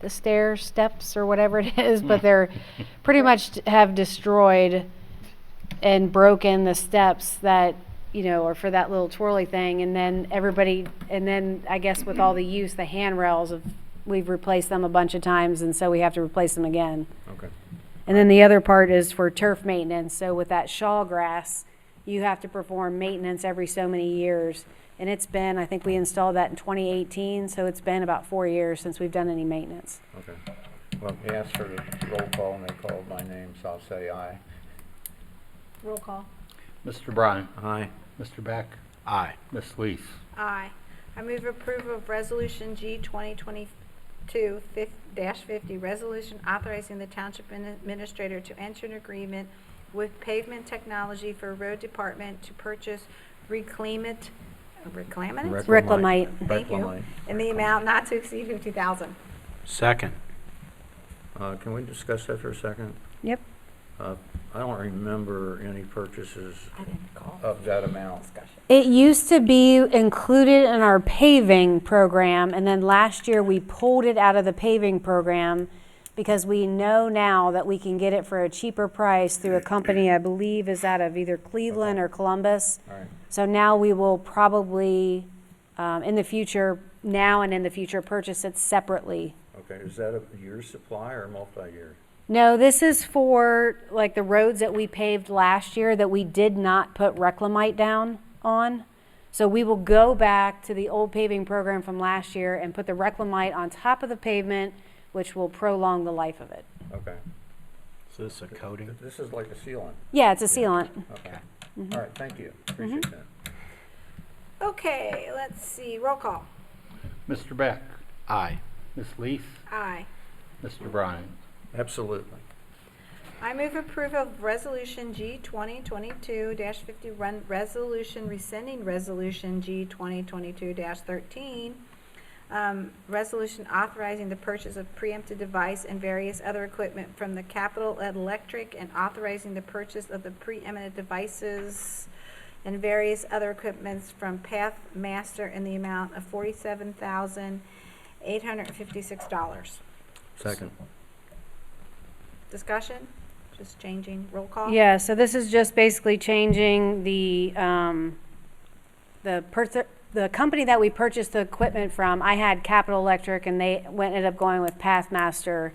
the stair steps or whatever it is, but they're pretty much d- have destroyed and broken the steps that, you know, are for that little twirly thing. And then everybody, and then I guess with all the use, the handrails, of we've replaced them a bunch of times and so we have to replace them again. Okay. And then the other part is for turf maintenance. So with that shaw grass, you have to perform maintenance every so many years. And it's been, I think we installed that in 2018, so it's been about four years since we've done any maintenance. Okay. Well, he asked for the roll call and they called my name, so I'll say aye. Roll call. Mr. Bryan. Aye. Mr. Beck. Aye. Ms. Lees. Aye. I move approval of Resolution G 2022-50, resolution authorizing the Township Admin- Administrator to enter an agreement with Pavement Technology for Road Department to purchase reclaimant, reclamant? Reclamite. Thank you. Reclamite. In the amount not to exceed 50000 Second. Uh, can we discuss that for a second? Yep. Uh, I don't remember any purchases I didn't call. of that amount. Discussion. It used to be included in our paving program, and then last year we pulled it out of the paving program because we know now that we can get it for a cheaper price through a company I believe is out of either Cleveland or Columbus. All right. So now we will probably, um, in the future, now and in the future, purchase it separately. Okay, is that a year supply or multi-year? No, this is for like the roads that we paved last year that we did not put reclamite down on. So we will go back to the old paving program from last year and put the reclamite on top of the pavement, which will prolong the life of it. Okay. So this is a coding? This is like a sealant. Yeah, it's a sealant. Okay. Mm-hmm. All right, thank you. Appreciate that. Okay, let's see, roll call. Mr. Beck. Aye. Ms. Lees. Aye. Mr. Bryan. Absolutely. I move approval of Resolution G 2022-51, resolution rescinding Resolution G 2022-13, um, resolution authorizing the purchase of preemptive device and various other equipment from the Capital Electric and authorizing the purchase of the preeminent devices and various other equipments from Pathmaster in the amount of $47,856. Second. Discussion? Just changing roll call? Yeah, so this is just basically changing the, um, the per, the company that we purchased the equipment from, I had Capital Electric and they went, ended up going with Pathmaster.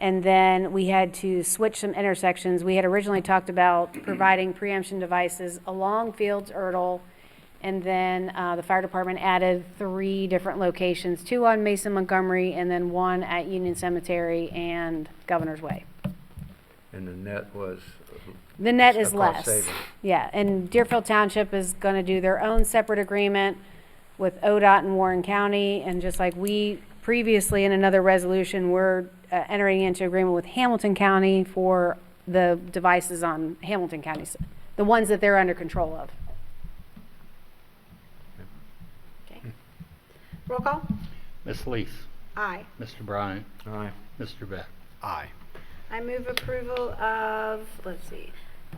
And then we had to switch some intersections. We had originally talked about providing preemption devices along Fields Erdel. And then, uh, the fire department added three different locations, two on Mason Montgomery and then one at Union Cemetery and Governor's Way. And the net was, The net A is cost less. saving. Yeah, and Deerfield Township is going to do their own separate agreement with ODOT and Warren County. And just like we previously in another resolution, we're uh, entering into agreement with Hamilton County for the devices on Hamilton County, s- the ones that they're under control of. Okay. Roll call? Ms. Lees. Aye. Mr. Bryan. aye, Mr. Beck. Aye. I move approval of, let's see,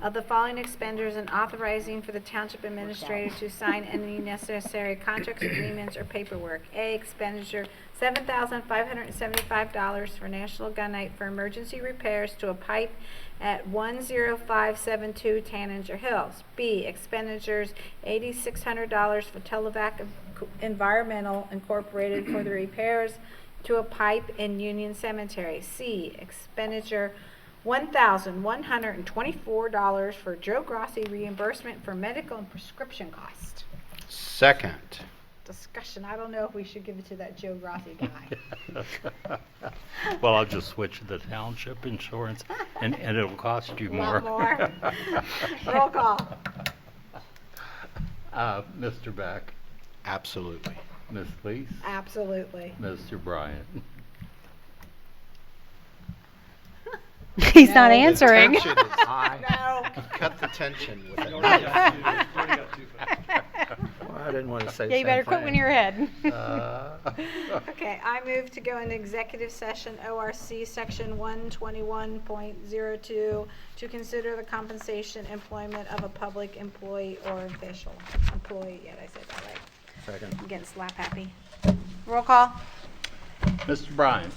of the following expenditures and authorizing for the township administrator to sign any necessary contracts, agreements, or paperwork. A, expenditure seven thousand five hundred and seventy-five dollars for National Gun Night for emergency repairs to a pipe at one zero five seven two Tanager Hills. B, expenditures eighty-six hundred dollars for Televac Environmental Incorporated for the repairs to a pipe in Union Cemetery. C, expenditure $1,124 for Joe Grassi reimbursement for medical and prescription costs. Second. Discussion, I don't know if we should give it to that Joe Grassi guy. Well, I'll just switch to the township insurance and, and it'll cost A you Lot more. Roll call. Uh, Mr. Beck. Absolutely. Ms. Lees. Absolutely. Mr. Bryan. He's not answering. Tension is high. No. Cut the tension with it. well, I didn't want to say something. Yeah, you better quit when you're ahead. Okay, I move to go into executive session, ORC Section 121.02, to consider the compensation employment of a public employee or official. Employee, yeah, I said that right. Second. I'm getting slap happy. Roll call. Mr. Bryan.